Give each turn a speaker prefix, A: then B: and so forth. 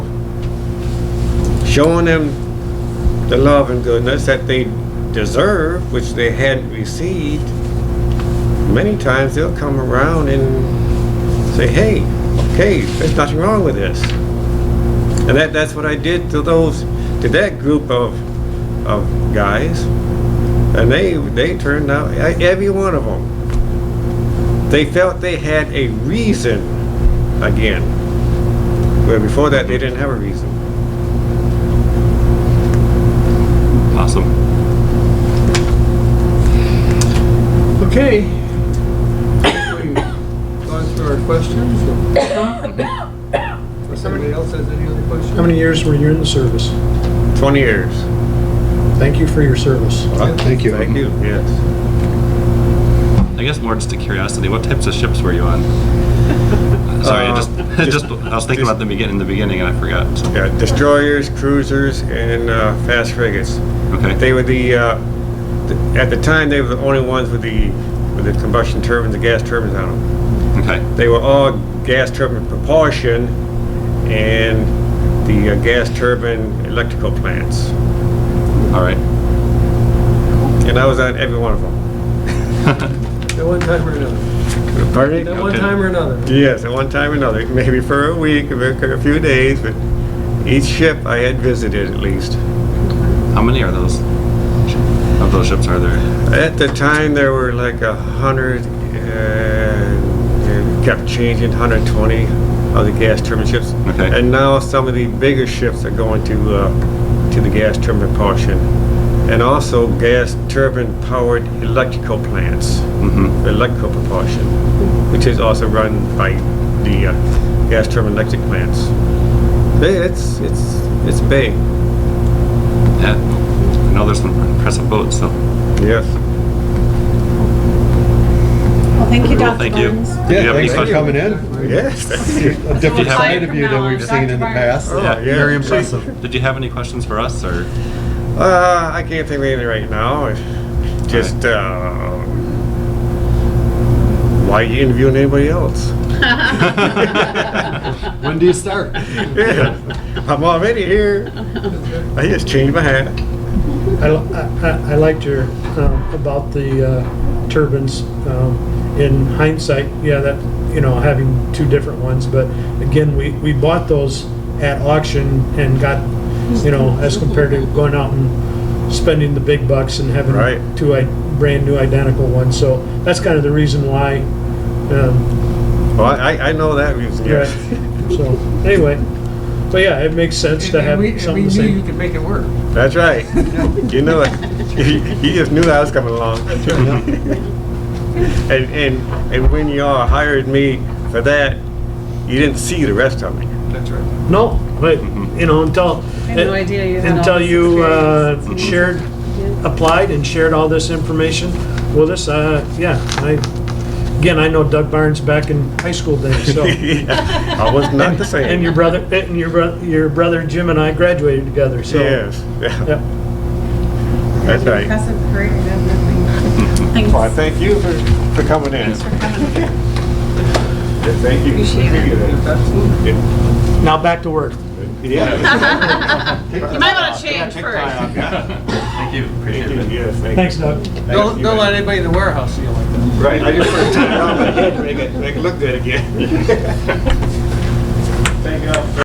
A: showing them the love and goodness that they deserve, which they hadn't received, many times they'll come around and say, hey, okay, there's nothing wrong with this. And that, that's what I did to those, to that group of, of guys. And they, they turned out, e- every one of them, they felt they had a reason again. Where before that, they didn't have a reason.
B: Awesome.
C: Okay. We've Gone through our questions. If somebody else has any other questions?
D: How many years were you in the service?
A: 20 years.
D: Thank you for your service.
E: Thank you.
A: Thank you, yes.
B: I guess more just a curiosity. What types of ships were you on? Sorry, I
A: Uh,
B: just, I Um, just I was thinking about the begin in the beginning and I forgot. so-
A: Yeah, destroyers, cruisers, and uh, fast frigates.
B: Okay.
A: They were the, uh, th- at the time, they were the only ones with the, with the combustion turbines, the gas turbines on them.
B: okay.
A: They were all gas turbine propulsion and the uh, gas turbine electrical plants.
B: All right.
A: And I was on every one of them.
C: At one time or another. At
A: Pardon?
C: one
B: Okay.
C: time or another.
A: Yes, at one time or another, maybe for a week, or a few days, but each ship I had visited at least.
B: How many are those? Of those ships are there?
A: At the time, there were like a hundred, and it kept changing, 120 of the gas turbine ships.
B: Okay.
A: And now some of the bigger ships are going to, uh, to the gas turbine propulsion. And also gas turbine powered electrical plants,
B: Mm-hmm.
A: electrical propulsion, which is also run by the, uh, gas turbine electric plants. They- It's, it's, it's big,
B: Yeah. I know there's some impressive boats, so
A: yes.
F: Well, thank you,
B: Well,
F: Dr.
B: thank you.
F: Barnes.
B: Do you
E: Yeah,
B: have any
E: thanks
B: questions?
E: for coming in.
A: Yes.
E: A different
B: Yeah.
E: side of you than we've seen in the past.
A: Oh, yeah.
E: Very impressive.
B: Did you have any questions for us or?
A: Uh, I can't think of anything right now. It's Just uh, why you interviewing anybody else?
E: When do you start?
A: Yeah, I'm already here. I just changed my hat.
D: I, I, I liked your, um, about the uh, turbines. Um, In hindsight, yeah, that, you know, having two different ones, but again, we, we bought those at auction and got, you know, as compared to going out and spending the big bucks and having
A: Right.
D: two i- brand new identical ones. So that's kind of the reason why, um,
A: Well, Oh, I, I know that reason.
D: yeah.
A: Yes.
D: So, anyway, but yeah, it makes sense to
C: And-
D: have
C: and we- and
D: something the
C: We knew you
D: same.
C: could make it work.
A: That's right. You know it. You, you just knew I was coming along. and, and, and when y'all hired me for that, you didn't see the rest of me.
C: That's right.
D: No, but, you know, until.
F: I had no idea you had all
D: Until
F: this
D: you uh,
F: experience.
D: shared, applied and shared all this information with us, uh, yeah, I, again, I know Doug Barnes back in high school days, so.
A: Yeah, I was not the same.
D: And your brother, eh, and your brother, your brother Jim and I graduated together, so.
A: Yes. Yeah.
D: Yep.
A: Oh, That's right.
F: Impressive career and everything. Thanks.
A: Well, I thank you for, for coming in.
F: Thanks for coming.
A: Yeah, Thank you.
F: Appreciate it.
C: Absolutely.
A: Yeah.
D: Now back to work.
A: Yeah.
F: You might want to change first.
B: Thank you. Appreciate
A: Thank you,
B: it.
A: Yes, thank you.
D: Thanks, Doug.
C: Don't, don't let anybody in the warehouse see you like that.
A: Right, I just put it down, but I had to make it, make it look good again. Thank you all.